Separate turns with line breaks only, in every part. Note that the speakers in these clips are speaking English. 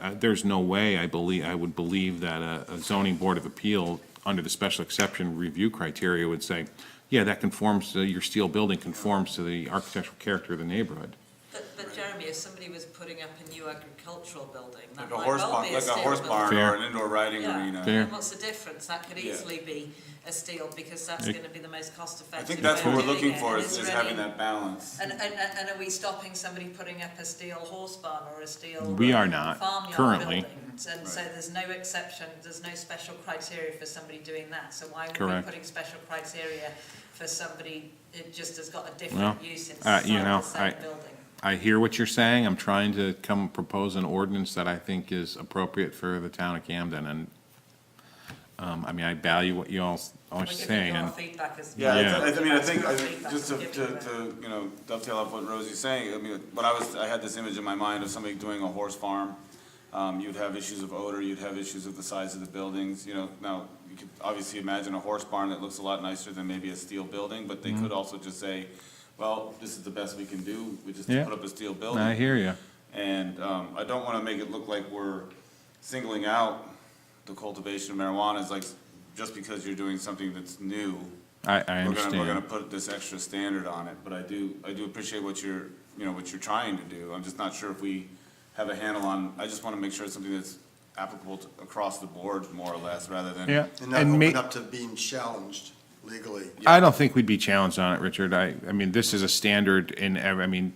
I- Uh, there's no way I believe, I would believe that a a zoning board of appeal, under the special exception review criteria, would say, yeah, that conforms, to- your steel building conforms to the architectural character of the neighborhood.
But, but Jeremy, if somebody was putting up a new agricultural building, that
Like a
might
horse
well be
barn,
a
like a
steel
horse barn
building.
Fair.
or an indoor riding arena.
Fair.
Yeah, and what's the difference? That could
Yeah.
easily be a steel, because that's
Yeah.
gonna be the most cost
I
effective.
think that's
way
what
of
we're
doing
looking
it,
for,
and
is,
it's
is having
really-
that balance.
And, and, and are we stopping somebody putting up a steel horse barn or a steel?
We are not,
farmyard
currently.
building? And so
Right.
there's no exception, there's no special criteria for somebody doing that, so why would we be
Correct.
putting special criteria for somebody that just has got a
Well,
different use
uh,
inside
you know,
the same
I-
building?
I hear what you're saying. I'm trying to come propose an ordinance that I think is appropriate for the town of Camden, and, um, I mean, I value what you all s-
We
are
could give
saying,
you our
and
feedback as
Yeah,
well.
it's- I I mean, I think, I think,
Feedback
just to,
and give you
to,
that.
to, you know, dovetail off what Rosie's saying, I mean, when I was, I had this image in my mind of somebody doing a horse farm. Um, you'd have issues of odor, you'd have issues of the size of the buildings, you know, now, you could obviously imagine a horse barn that looks a lot nicer than maybe a steel building, but
Mm-hmm.
they could also just say, well, this is the best we can do, we just
Yeah.
put up a steel building.
I hear you.
And um, I don't want to make it look like we're singling out the cultivation of marijuana as like, just because you're doing something that's new.
I, I
We're gonna, we're gonna
understand.
put this extra standard on it, but I do, I do appreciate what you're, you know, what you're trying to do. I'm just not sure if we have a handle on, I just want to make sure it's something that's applicable to, across the board more or less, rather than.
Yeah,
And not
and ma-
open up to being challenged legally.
I don't think we'd be challenged on it, Richard. I, I mean, this is a standard in, ev- I mean,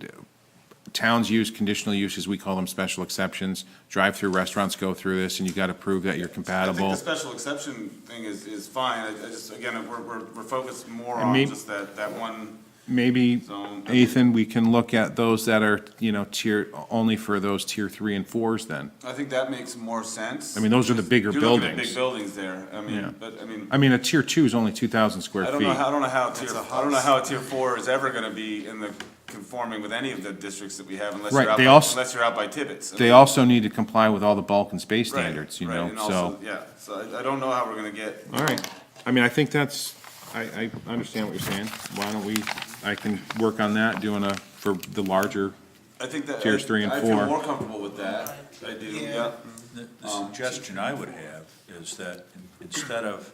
towns use conditional uses, we call them special exceptions. Drive-through restaurants go through this, and you gotta prove that you're
I think the
compatible.
special exception thing is, is fine. I, I just, again, we're, we're, we're focused more
And
on
may-
just that, that one.
Maybe,
Zone.
Ethan, we can look at those that are, you know, tier, only for those tier three and fours then.
I think that makes more sense.
I mean, those are the bigger
You're looking at
buildings.
Big buildings there, I
Yeah.
mean, but, I mean,
I mean, a tier two is only two thousand square
I don't know,
feet.
how- I don't know how tier,
That's a
I don't know
house.
how tier four is ever gonna be in the, conforming with any of the districts that we have unless
Right,
you're out,
they
by-
also-
unless you're out by Tibbetts. I
They
mean,
also need to comply with all the bulk and space
right,
standards, you
right,
know,
and also-
so.
Yeah, so I, I don't know how we're gonna get.
All right, I mean, I think that's, I, I understand what you're saying. Why don't we, I can work on that, doing a, for the larger,
I think that.
Tiers three and
I- I
four.
feel more comfortable with that, I do, yeah.
The the suggestion I would have is that in- instead of,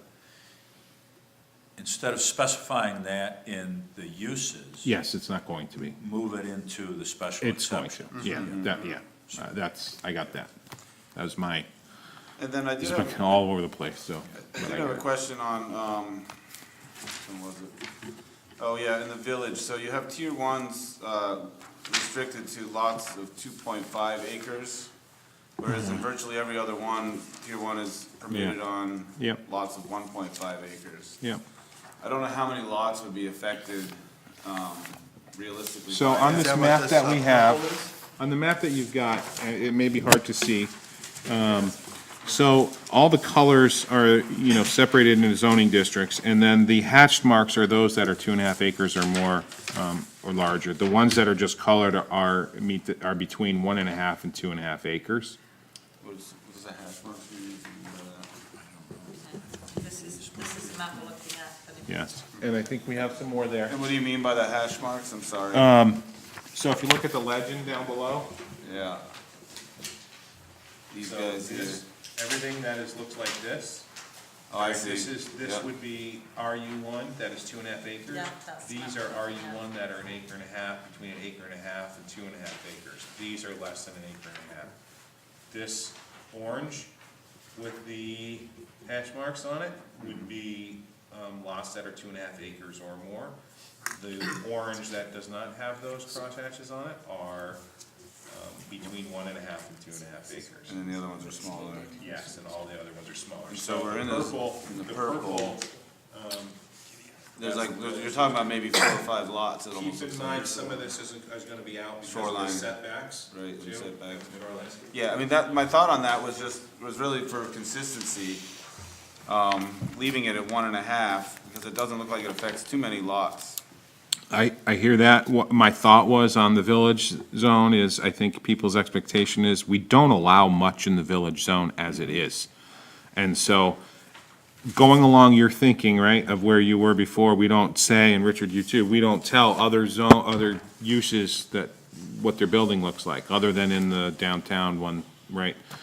instead of specifying that in the uses.
yes, it's not going to be.
Move it into the special
It's going
exception.
to, yeah, that, yeah, Uh, that's, I got that. That was my,
And then I did
it's
have,
been all over the place, so.
I
but I
did have a
got it.
question on, um, when was it? Oh, yeah, in the village, so you have tier ones, uh, restricted to lots of two point five acres, whereas in virtually every other one, tier one is permitted
Mm-hmm. Yeah.
on
Yep.
lots of one point five acres.
Yeah,
I don't know how many lots would be affected, um, realistically.
so
by
on
that.
this
that what
map
this,
that
uh,
we have,
purple
on the map that you've got, uh, it may be hard to see. Um, So all the colors are, you know, separated into zoning districts, and then the hatched marks are those that are two and a half acres or more, um, or larger. The ones that are just colored are, meet, the- are between one and a half and two and a half acres.
What is, what is a hash mark? Uh,
This is, this is a map we're looking at, and if
Yes. And I think we have some more there.
And what do you mean by the hash marks? I'm sorry.
Uh, So if you look at the legend down below,
Yeah. These
So
guys here.
this, everything that is, looks like this.
Oh, I see.
This is, this
Yeah.
would be RU one, that is two and a half acres.
Yeah, that's
These
not-
are RU
yeah.
one that are an acre and a half, between an acre and a half and two and a half acres. These are less than an acre and a half. This orange with the hash marks on it would be, um, lots that are two and a half acres or more. The orange that does not have those cross hatches on it are, um, between one and a half and two and a half acres.
And then the other ones are smaller.
Yes, and all the other ones are smaller.
And so we're in
the
this-
purple,
in the
the
purple,
purple,
There's like, there's- you're talking about maybe four or five lots, it almost
keep in
looks
mind,
like.
some of this isn't, is gonna be out because of the
Shoreline.
setbacks.
Right, and
too.
setbacks.
Shoreline.
Yeah, I mean, that, my thought on that was just, was really for consistency, um, leaving it at one and a half, because it doesn't look like it affects too many lots.
I, I hear that. What my thought was on the village zone is, I think people's expectation is, we don't allow much in the village zone as it is. And so, going along your thinking, right, of where you were before, we don't say, and Richard, you too, we don't tell other zone, other uses that, what their building looks like, other than in the downtown one, right? Um,